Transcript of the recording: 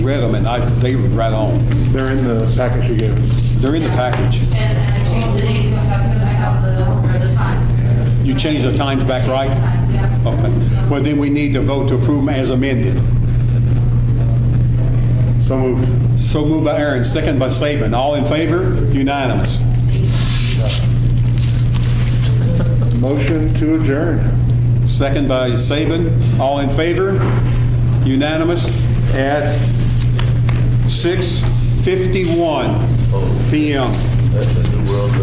Read them, and I, they were right on. They're in the package you gave us. They're in the package. And I changed the date, so I have put back out the, or the times. You changed the times back, right? The times, yeah. Okay. Well, then we need to vote to approve them as amended. So moved. So moved by Aaron, second by Saban. All in favor? Unanimous. Motion to adjourn. Second by Saban. All in favor? Unanimous at 6:51 PM.